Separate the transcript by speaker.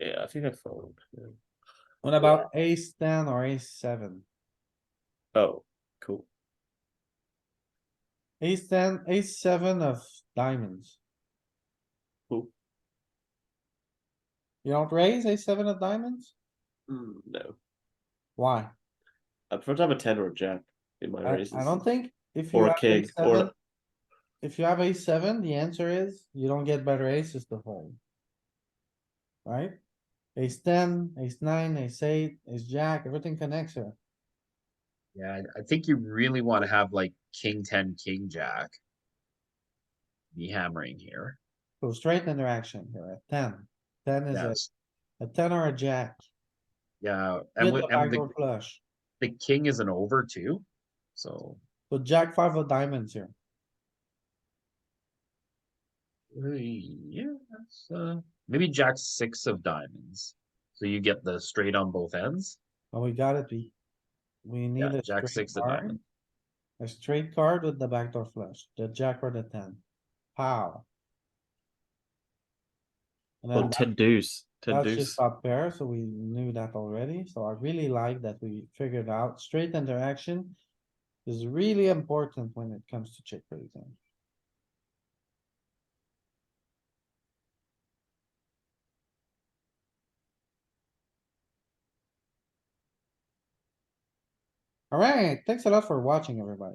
Speaker 1: I think I fold. yeah.
Speaker 2: What about ace ten or ace seven?
Speaker 1: Oh, cool.
Speaker 2: Ace ten, ace seven of diamonds.
Speaker 1: Cool.
Speaker 2: You don't raise ace seven of diamonds?
Speaker 1: Mm, No,
Speaker 2: Why?
Speaker 1: I prefer to have a ten or a jack in my
Speaker 2: I,
Speaker 1: raises.
Speaker 2: I don't think if you.
Speaker 1: Or a
Speaker 2: have
Speaker 1: king,
Speaker 2: ace
Speaker 1: or-
Speaker 2: seven- If you have a seven, the answer is you don't get better aces to fold. Right? Ace ten, ace nine, ace eight, ace jack, everything connects here.
Speaker 3: Yeah, I- I think you really wanna have like king ten, king jack. Be hammering here.
Speaker 2: So straight interaction here at ten. Ten is
Speaker 3: Yes,
Speaker 2: a, a ten or a jack.
Speaker 3: yeah, and
Speaker 2: With
Speaker 3: with,
Speaker 2: the
Speaker 3: and
Speaker 2: backdoor
Speaker 3: the,
Speaker 2: flush.
Speaker 3: the king is an over too, so.
Speaker 2: So jack five of diamonds here.
Speaker 3: uh, Yeah, that's, uh, maybe jack six of diamonds. So you get the straight on both ends.
Speaker 2: Oh, we got it, we. We need
Speaker 3: Yeah,
Speaker 2: a
Speaker 3: jack
Speaker 2: straight
Speaker 3: six of
Speaker 2: card,
Speaker 3: diamonds.
Speaker 2: a straight card with the backdoor flush, the jack or the ten. Pow. And
Speaker 4: Or
Speaker 2: then that-
Speaker 4: ten deuce, ten
Speaker 2: that's
Speaker 4: deuce.
Speaker 2: just up there, so we knew that already, so I really like that we figured out straight interaction. Is really important when it comes to check raising. Alright, thanks a lot for watching, everybody.